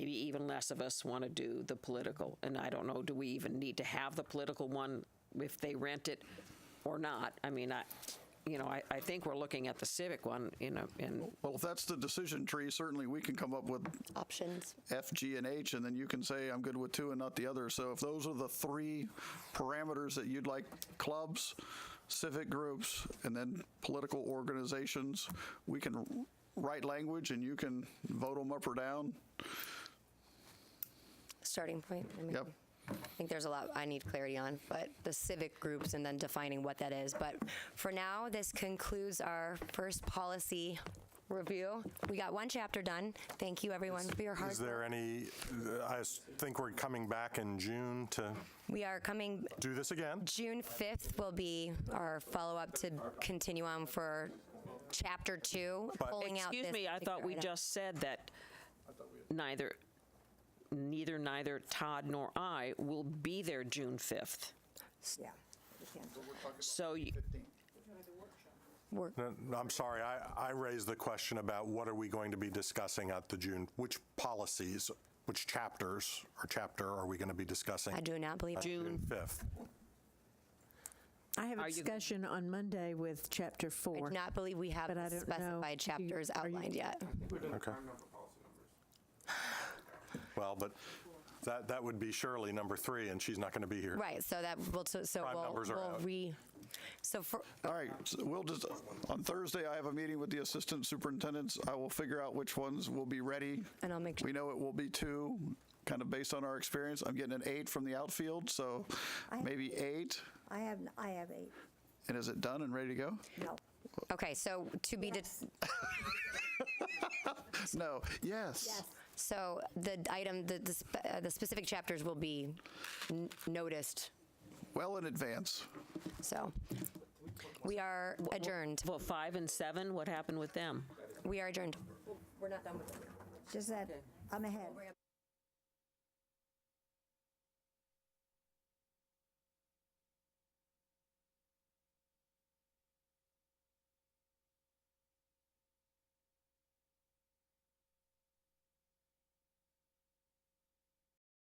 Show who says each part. Speaker 1: even less of us want to do the political. And I don't know, do we even need to have the political one if they rent it or not? I mean, I, you know, I, I think we're looking at the civic one, you know, and
Speaker 2: Well, if that's the decision tree, certainly we can come up with
Speaker 3: options.
Speaker 2: F, G, and H, and then you can say, I'm good with two and not the other. So if those are the three parameters that you'd like, clubs, civic groups, and then political organizations, we can write language and you can vote them up or down.
Speaker 3: Starting point. I mean,
Speaker 2: Yep.
Speaker 3: I think there's a lot I need clarity on, but the civic groups and then defining what that is. But for now, this concludes our first policy review. We got one chapter done. Thank you, everyone, for your hard
Speaker 4: Is there
Speaker 3: work.
Speaker 4: any, I s- think we're coming back in June to
Speaker 3: We are coming.
Speaker 4: do this again?
Speaker 3: June 5th will be our follow-up to continue on for chapter two, pulling out
Speaker 1: Excuse
Speaker 3: this
Speaker 1: me, I thought
Speaker 3: particular
Speaker 1: we
Speaker 3: item.
Speaker 1: just said that neither, neither, neither Todd nor I will be there June 5th. So you-
Speaker 3: Work-
Speaker 4: No, no, I'm sorry, I, I raised the question about what are we going to be discussing at the June, which policies, which chapters or chapter are we going to be discussing?
Speaker 3: I do not believe.
Speaker 1: June
Speaker 4: 5th.
Speaker 5: I have a
Speaker 1: Are you-
Speaker 5: discussion on Monday with chapter
Speaker 3: I
Speaker 5: four.
Speaker 3: do not believe we have
Speaker 5: But I
Speaker 3: the
Speaker 5: don't know.
Speaker 3: specified
Speaker 5: Do you-
Speaker 3: chapters
Speaker 5: are you-
Speaker 3: outlined yet.
Speaker 4: Okay. Well, but that, that would be Shirley, number three, and she's not going to be here.
Speaker 3: Right, so that, will so so
Speaker 4: Prime
Speaker 3: we'll,
Speaker 4: numbers are
Speaker 3: we'll
Speaker 4: out.
Speaker 3: re, so for,
Speaker 2: All right, so we'll just, on Thursday, I have a meeting with the assistant superintendents. I will figure out which ones will be ready.
Speaker 3: And I'll make sure-
Speaker 2: We know it will be two, kind of based on our experience. I'm getting an eight from the outfield, so maybe eight.
Speaker 6: I have, I have eight,
Speaker 2: And is it done and ready to go?
Speaker 6: no.
Speaker 3: okay, so to be, de-
Speaker 2: No, yes.
Speaker 3: so the item, the, the spe- uh, the specific chapters will be n- noticed,
Speaker 2: Well in advance.
Speaker 3: so. We are adjourned,
Speaker 1: Well, five and seven, what happened with them?
Speaker 3: we are adjourned. We're not done with it.
Speaker 6: Just that, I'm ahead.